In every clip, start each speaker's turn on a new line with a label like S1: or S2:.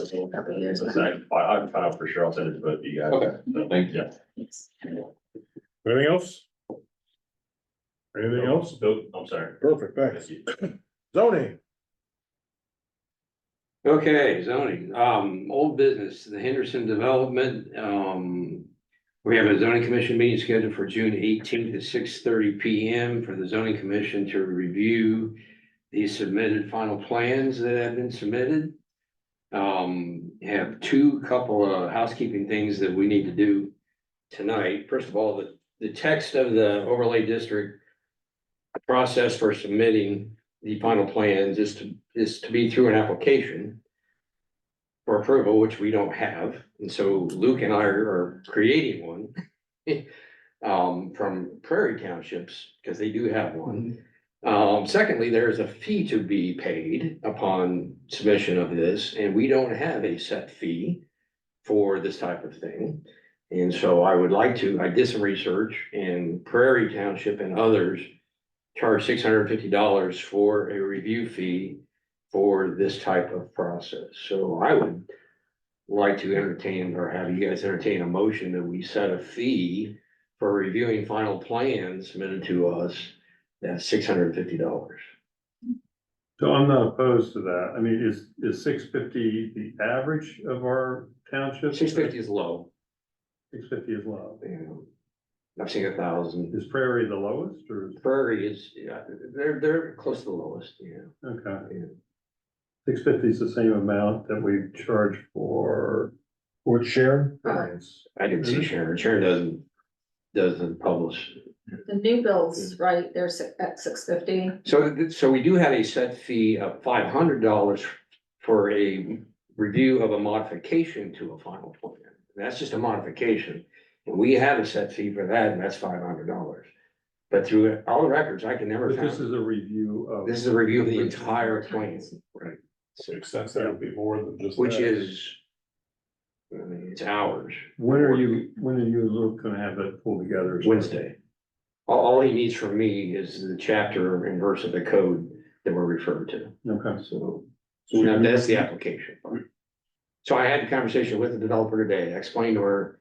S1: a couple of years.
S2: Listen, I, I- I've filed for sure, I'll send it to both of you guys.
S3: Okay,
S2: So,
S3: thank you.
S2: Yeah.
S4: Anything else? Anything else?
S2: Bill, I'm sorry.
S4: Perfect, thanks. Zoning,
S5: Okay, zoning, um, old business, the Henderson Development, um. We have a zoning commission meeting scheduled for June eighteenth at six thirty P M for the zoning commission to review. The submitted final plans that have been submitted. Um, have two couple of housekeeping things that we need to do tonight. First of all, the, the text of the overlay district. Process for submitting the final plans is to, is to be through an application. For approval, which we don't have, and so Luke and I are creating one. Um, from Prairie Townships, because they do have one. Um, secondly, there is a fee to be paid upon submission of this, and we don't have a set fee. For this type of thing, and so I would like to, I did some research and Prairie Township and others charge six hundred and fifty dollars for a review fee for this type of process. So I would like to entertain or have you guys entertain a motion that we set a fee for reviewing final plans submitted to us. That's six hundred and fifty dollars.
S6: So I'm not opposed to that. I mean, is, is six fifty the average of our township?
S5: Six fifty is low.
S6: Six fifty is low.
S5: you know. I've seen a thousand.
S6: Is Prairie the lowest or, is-
S5: Prairie is, yeah, they're, they're close to the lowest, yeah.
S6: okay.
S5: Yeah.
S6: Six fifty is the same amount that we charge for.
S4: with Sharon,
S6: grants.
S5: I didn't see Sharon. Sharon doesn't, doesn't publish
S1: The new bills, right, they're si- at six fifty.
S5: So, th- so we do have a set fee of five hundred dollars for a review of a modification to a final plan. That's just a modification, and we have a set fee for that, and that's five hundred dollars. But through all the records, I can never
S6: But this
S5: find,
S6: is a review of.
S5: this is a review of the entire plan, right,
S4: makes sense, that would be more than just.
S5: which
S4: that.
S5: is. I mean, it's hours,
S6: When are you, when are you and Luke gonna have that pulled together?
S5: Wednesday. All, all he needs from me is the chapter and verse of the code that we're referred to.
S6: Okay.
S5: So, so now that's the application. So I had the conversation with the developer today, I explained to her.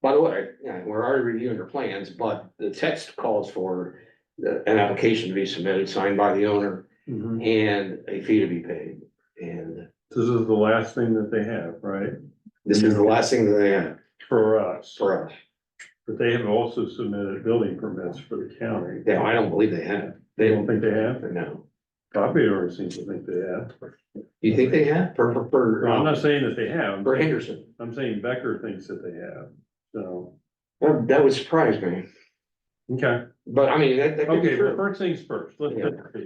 S5: By the way, you know, we're already reviewing her plans, but the text calls for the- an application to be submitted, signed by the owner
S6: Mhm.
S5: and a fee to be paid. And
S6: This is the last thing that they have, right?
S5: this is the last thing that they have
S6: For us,
S5: for us.
S6: but they have also submitted building permits for the county.
S5: Now, I don't believe they have.
S6: I
S5: They
S6: don't
S5: don't,
S6: think they have.
S5: no.
S6: Bobby already seems to think they have.
S5: You think they have? For, for- for,
S6: I'm not saying that they have.
S5: for Henderson?
S6: I'm saying Becker thinks that they have. So,
S5: Well, That would surprise me,
S6: okay,
S5: but I mean, that, that could be
S6: okay, well,
S5: true.
S6: first things first. Let's,
S5: Yeah.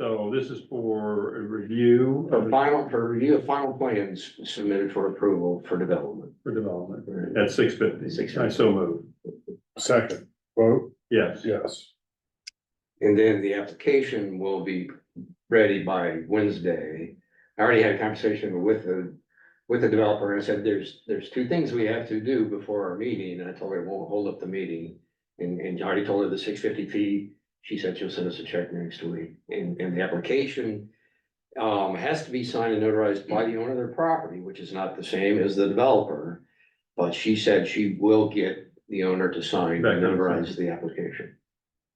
S6: so this is for a review
S5: A
S6: of
S5: final, for review of final plans submitted for approval for development.
S6: for development at six fifty.
S5: Six
S6: I
S5: fifty.
S6: so move.
S4: Second, vote,
S6: Yes,
S4: yes.
S5: And then the application will be ready by Wednesday. I already had a conversation with the, with the developer and I said, there's, there's two things we have to do before our meeting. And I told her, it won't hold up the meeting. And, and I already told her the six fifty fee. She said she'll send us a check next week. And, and the application um, has to be signed and notarized by the owner of their property, which is not the same as the developer. But she said she will get the owner to sign and notarize the application.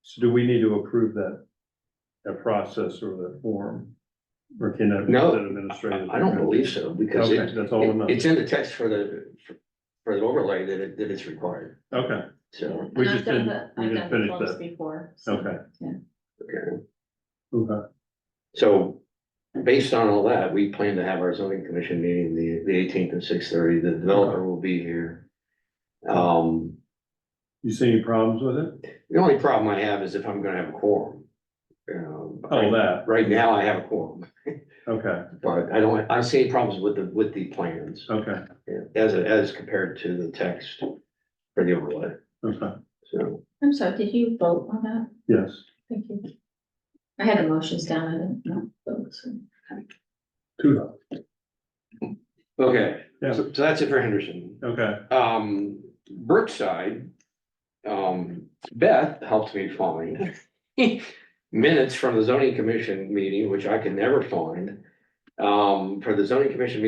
S6: so do we need to approve that? That process or that form? Or can that? be
S5: No,
S6: an administrative?
S5: I don't believe so, because
S6: Okay,
S5: it,
S6: that's all I'm,
S5: it- it's
S6: okay,
S5: in the text for the, for- for the overlay that it, that it's required, so.
S6: We just didn't- we didn't finish that.
S1: Before. so-
S6: okay,
S5: okay.
S6: okay.
S5: So, based on all that, we plan to have our zoning commission meeting the, the eighteenth at six thirty, the developer will be here. Um,
S6: You see any problems with it?
S5: the only problem I have is if I'm gonna have a quorum. Um,
S6: Oh, that,
S5: Right now, I have a quorum,
S6: okay,
S5: but I don't, I don't see any problems with the, with the plans,
S6: okay,
S5: as, as compared to the text for the overlay,
S6: okay,
S5: so.
S1: I'm sorry, did you vote on that?
S6: yes.
S1: Thank you. I had the motions down, I didn't know. votes.
S6: Two,
S5: Okay,
S6: Yeah.
S5: so so that's it for Henderson.
S6: okay,
S5: Um, Brookside, um, Beth helped me find minutes from the zoning commission meeting, which I could never find. Um, for the zoning commission meeting